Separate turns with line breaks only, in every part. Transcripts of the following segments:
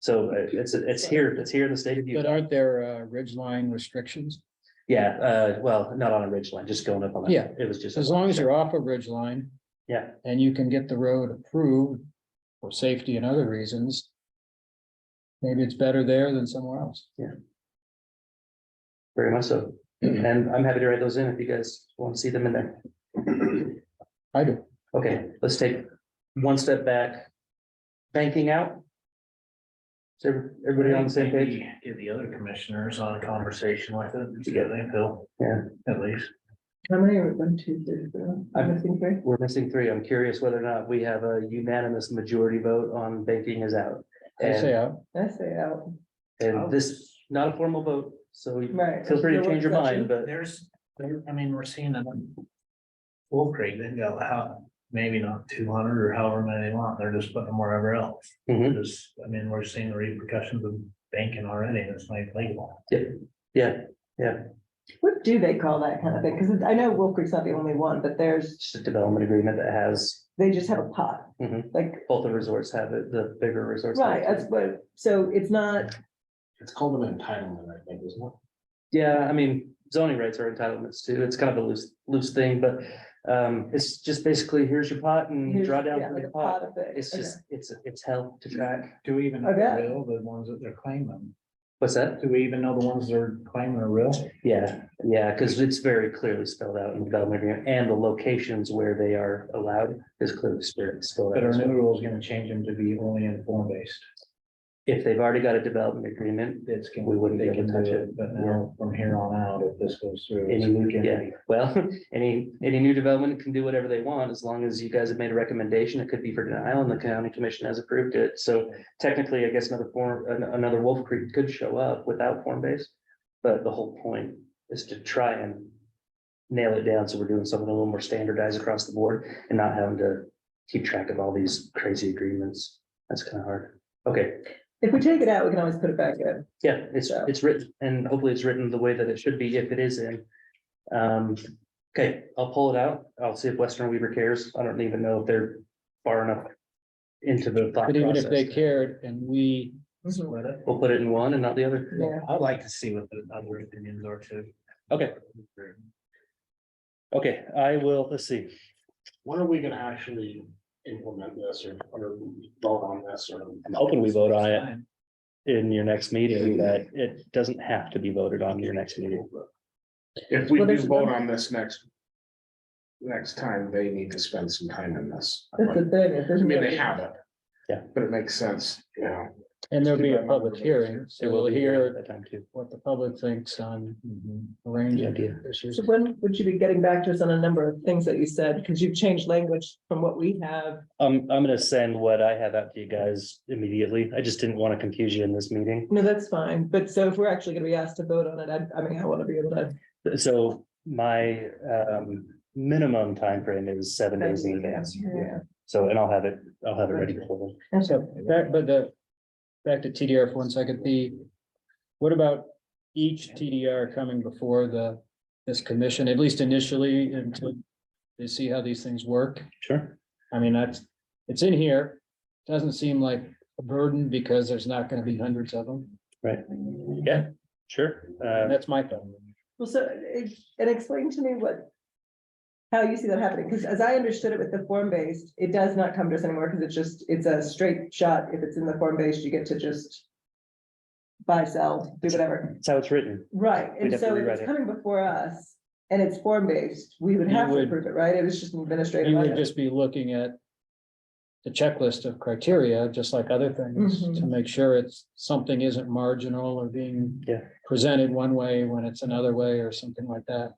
So uh, it's, it's here, it's here in the state of
But
Utah.
aren't there uh ridge line restrictions?
Yeah, uh, well, not on a ridge line, just going up on. that.
Yeah.
It was just.
As long as you're off a ridge line
Yeah,
and you can get the road approved for safety and other reasons. Maybe it's better there than somewhere else.
very much so. And I'm happy to write those in if you guys want to see them in there.
I do.
Okay, let's take one step back. Banking out. Is every- everybody on the same page?
Maybe Get the other commissioners on a conversation like that, together, Phil.
Yeah.
At least.
How many are one, two, three, four?
I'm-
I think three.
We're missing three. I'm curious whether or not we have a unanimous majority vote on banking is out.
I say,
And,
uh,
I say out.
and this, not a formal vote, so
Right.
feel free to change your mind, but
There's, there- I mean, we're seeing it. on Wolf Creek, they've got how, maybe not two hundred or however many they want, they're just putting them wherever else.
Mhm.
Just, I mean, we're seeing the repercussions of banking already, and it's like legal.
yeah,
What do they call that kind of thing? Because I know Wolf Creek's not the only one, but there's,
it's just a development agreement that has,
they just have a pot.
Mhm.
Like,
both the resorts have it, the bigger resorts. have
right,
it.
that's what, so it's not,
It's called an entitlement, I think, isn't it?
Yeah, I mean, zoning rights are entitlements too. It's kind of a loose, loose thing, but um, it's just basically, here's your pot and
here's-
draw down
yeah,
from
like
the
a
pot.
pot of it.
It's
Okay.
just, it's, it's hell to track.
Do we even know
I bet.
they're real, the ones that they're claiming?
What's that?
Do we even know the ones they're claiming are real?
Yeah, yeah, because it's very clearly spelled out in the development agreement and the locations where they are allowed is clearly spe- spelled
But our new
out.
rule is gonna change them to be only inform based.
If they've already got a development agreement,
It's. can-
We wouldn't be
they
able to
can do
touch
But now, from here on out, if this goes through. it's-
Any new- yeah. well, any, any new development can do whatever they want as long as you guys have made a recommendation. It could be for denial and the county commission has approved it. So technically, I guess another form, an- another Wolf Creek could show up without form base. But the whole point is to try and nail it down. So we're doing something a little more standardized across the board and not having to keep track of all these crazy agreements. That's kind of hard. Okay,
If we take it out, we can always put it back in.
yeah, it's,
Yeah.
it's written and hopefully it's written the way that it should be if it is in. Um, okay, I'll pull it out. I'll see if Western Weaver cares. I don't even know if they're far enough into the thought
but even if they
process.
cared and we,
Split it.
We'll put it in one and not the other.
Yeah.
I'd like to see what the other opinions are too.
Okay. Okay, I will, let's see.
When are we gonna actually implement this or, or vote on this or?
I'm hoping we vote on it
Fine.
in your next meeting, but it doesn't have to be voted on your next meeting.
If we
Well,
do
there's-
vote on this next. Next time, they need to spend some time on this.
That's the
I
thing. if there's-
mean, they have it.
Yeah.
But it makes sense, you know.
and there'll be a public hearing, so we'll
at
hear
that time too.
what the public thinks on
Mhm.
Mm-hmm.
a range of
Yeah.
issues.
So when would you be getting back to us on a number of things that you said? Because you've changed language from what we have.
I'm, Um, I'm gonna send what I have out to you guys immediately. I just didn't want to confuse you in this meeting.
No, that's fine. But so if we're actually gonna be asked to vote on it, I, I mean, I want to be able to.
So my um minimum time frame is seven days in advance.
Yeah.
So and I'll have it, I'll have it ready for them.
So back, but the, back to TDR for one second, the, what about each TDR coming before the, this commission, at least initially, until they see how these things work?
Sure.
I mean, that's, it's in here, doesn't seem like a burden because there's not gonna be hundreds of them,
Yeah, sure. Uh,
that's my thought.
Well, so, eh, and explain to me what, how you see that happening, because as I understood it with the form-based, it does not come to us anymore, because it's just, it's a straight shot. If it's in the form-based, you get to just buy, sell, do whatever.
that's how it's written.
Right,
We'd
and
have to
so if
rewrite
it's
it.
coming before us and it's form-based, we would
You
have to
would-
approve it, right? It was just an administrative.
You would
item.
just be looking at the checklist of criteria, just like other things,
Mm-hmm.
to make sure it's, something isn't marginal or being
Yeah.
presented one way when it's another way or something like that.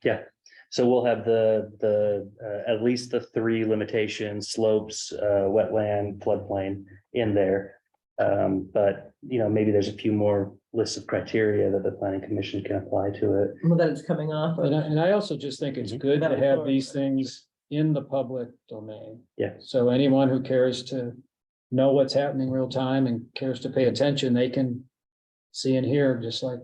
So we'll have the, the, uh, at least the three limitations, slopes, uh, wetland, floodplain in there. Um, but, you know, maybe there's a few more lists of criteria that the planning commission can apply to it.
Well, that it's coming off
And I,
of.
and I also just think it's
Mhm.
good to
That'll
have
work.
these things in the public domain.
Yeah.
So anyone who cares to know what's happening real time and cares to pay attention, they can see and hear just like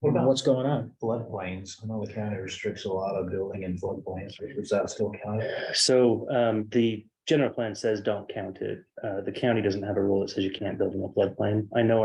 What about
what's going on.
floodplains? I know the county restricts a lot of building in floodplains, is that still counted?
So um, the general plan says don't count it. Uh, the county doesn't have a rule that says you can't build in a floodplain. I know